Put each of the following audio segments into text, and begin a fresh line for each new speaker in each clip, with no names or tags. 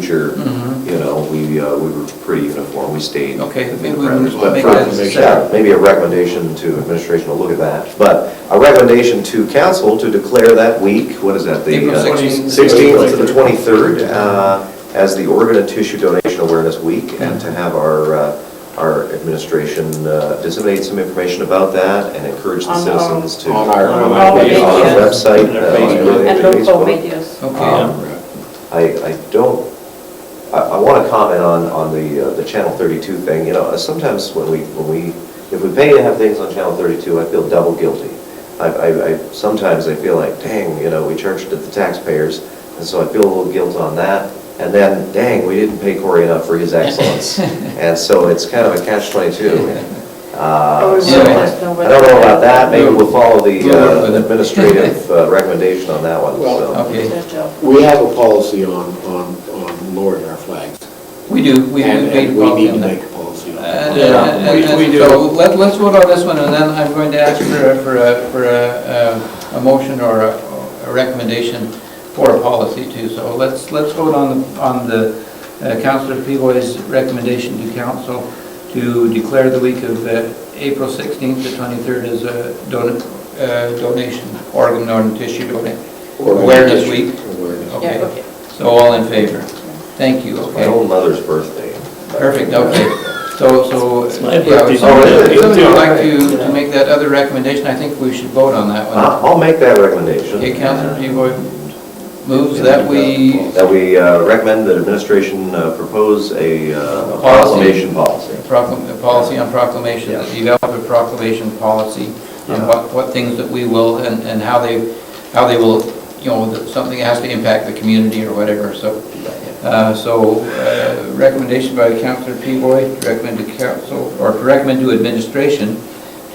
future,
Mhm.
you know, we, uh, we were pretty uniform, we stayed.
Okay,
within the
maybe we
parameters.
would
But
make
for-
that decision.
yeah, Maybe a recommendation to administration to look at that, but a recommendation to council to declare that week, what is that? the,
April
uh,
16th.
16th to the 23rd uh, as the organ and tissue donation awareness week, and to have our, uh, our administration uh, disseminate some information about that and encourage the
On our-
citizens to.
On our-
on our media.
On our website.
And
uh,
our
on
Facebook.
the
Oh, And
Facebook.
local videos.
Okay,
Um, I, I don't, I, I want to comment on, on the, uh, the Channel 32 thing, you know, uh, sometimes when we, when we, if we pay to have things on Channel 32, I feel double guilty. I, I, I- sometimes I feel like, dang, you know, we charged to the taxpayers, and so I feel a little guilt on that. And then, dang, we didn't pay Corey enough for his excellence. And so it's kind of a catch-22. Uh, so
Yeah.
I I don't know about that, maybe we'll follow the
We'll work
uh,
with it.
administrative uh, recommendation on that one,
Well,
so.
okay.
Their job.
We have a policy on, on, on lowering our flags.
we do, we we
And-
made a
And
policy
we need to
on
make
that.
a policy on
And,
it.
uh, and- and so let- let's vote on this one, and then I'm going to ask for, a- for a, for a, uh, a motion or a a recommendation for a policy too. So let's, let's vote on, the on the uh, Councillor Pivoy's recommendation to council to declare the week of uh, April 16th to 23rd as a don- uh, donation, organ, donor tissue donation, awareness week.
Awareness.
Yeah,
Okay.
okay.
So all in favor? Thank you,
My
okay.
own mother's birthday.
Perfect, okay. So, so.
my
yeah,
birthday.
so if Somebody would like
Yeah.
to, to make that other recommendation, I think we should vote on that
Uh,
one.
I'll make that recommendation. uh,
Okay, Councilor Pivoy moves that we,
That we uh, recommend that administration uh, propose a uh,
Policy.
proclamation policy.
proclam, the policy on proclamation,
Yeah.
develop a proclamation policy on
Yeah.
what, what things that we will, and, and how they, how they will, you know, that something has to impact the community or whatever, so. Uh, So, uh, recommendation by Councilor Pivoy, to recommend to council, or to recommend to administration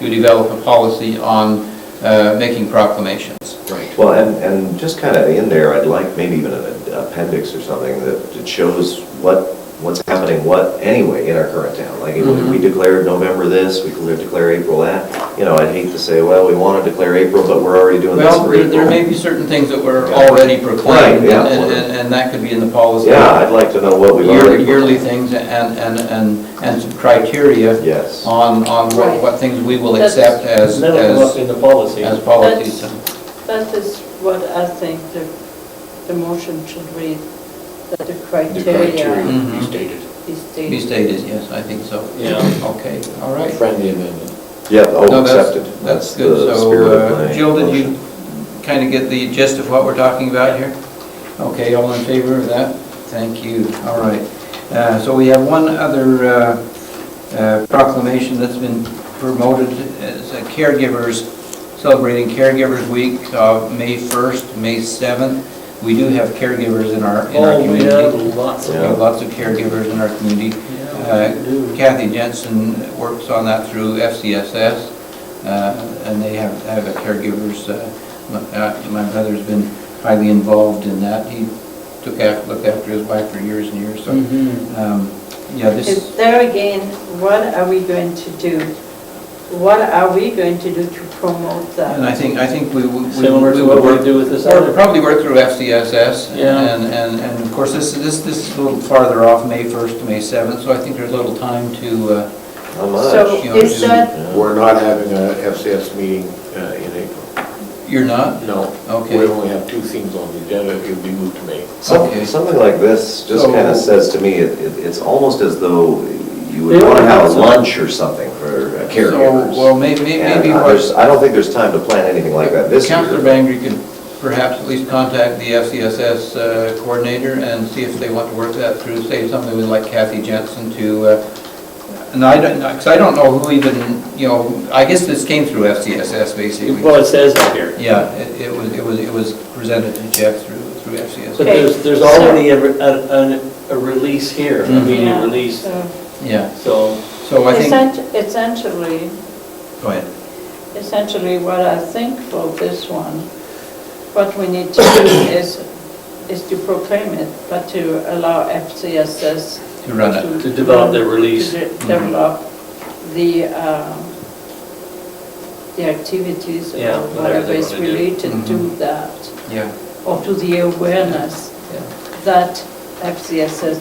to develop a policy on uh, making proclamations.
Right.
Well, and, and just kind of in there, I'd like maybe even an appendix or something that that shows what, what's happening, what, anyway, in our current town. Like, if
Mm-hmm.
we declared November this, we declared- declare April that, you know, I'd hate to say, well, we want to declare April, but we're already doing this
Well,
for
there-
April.
there may be certain things that were already proclaimed,
Right, yeah.
and, and- and that could be in the policy.
Yeah, I'd like to know what we've
Year-
already.
Yearly things and, and, and, and some criteria
Yes.
on, on what,
Right.
what things we will
That's-
accept as,
That'll come up
as,
in the policy.
as policies.
That's- That is what I think the, the motion should read, that the
The
criteria
criteria
Mhm.
we stated.
is stated.
Be stated, yes, I think so.
Yeah.
Okay, all right.
Friendly amendment.
Yeah,
No,
oh,
that's-
accepted.
That's
the
good,
spirit
so,
of
uh,
my
Jill, did you
motion.
kind of get the gist of what we're talking about here? Okay, all in favor of that? Thank you, all right. Uh, So we have one other uh, uh, proclamation that's been promoted as a caregivers, celebrating Caregivers Week of May 1st, May 7th. We do have caregivers in our, in our
Oh, we have
community.
lots
We
of.
Yeah.
have lots of caregivers in our community.
Yeah, we
Uh,
do.
Kathy Jensen works on that through FCSS, uh, and they have, have a caregivers, uh, my uh, my brother's been highly involved in that. He took after, looked after his wife for years and years, so,
Mhm.
um, yeah,
Is
this,
There again, what are we going to do? What are we going to do to promote
and I
that?
think, I think we would. we
Similar to
would
what
work-
we do with this
Or
other.
probably work through FCSS,
Yeah.
and, and, and of course, this, this, this is a little farther off, May 1st to May 7th, so I think there's a little time to, uh,
How
So
much?
you know,
is
do-
that,
We're not having a FCS meeting uh, in April.
you're not?
No.
Okay.
We only have two things on the agenda, it would be moved to May.
Some-
Okay.
Something like this just kind of
So-
says to me, it- it- it's almost as though you would
They
want to
don't
have
have
a
some-
lunch or something for uh,
So, Well,
caregivers.
may- may-
And
maybe
I-
what.
there's- I don't think there's time to plan anything like that this
Councilor
year.
Bangry could perhaps at least contact the FCSS uh, coordinator and see if they want to work that through, say something with like Kathy Jensen to, uh, and I don't, because I don't know who even, you know, I guess this came through FCSS basically.
Well, it says that here.
Yeah, it it was, it was, it was presented to Jeff through, through
But
FCSS.
Okay.
there's, there's already a, re- a, a- a release here, a
Mhm.
media
Yeah,
release,
so
Yeah,
so.
so I think,
essen- essentially,
go ahead.
essentially what I think for this one, what we need to do is, is to proclaim it, but to allow FCSS.
To run it. Mm-hmm.
To develop their release.
To de- develop the, um, the activities or
Yeah, whatever
whatever
they
is
wanna do.
related to
Mhm.
that,
Yeah,
or to the awareness
yeah.
that FCS says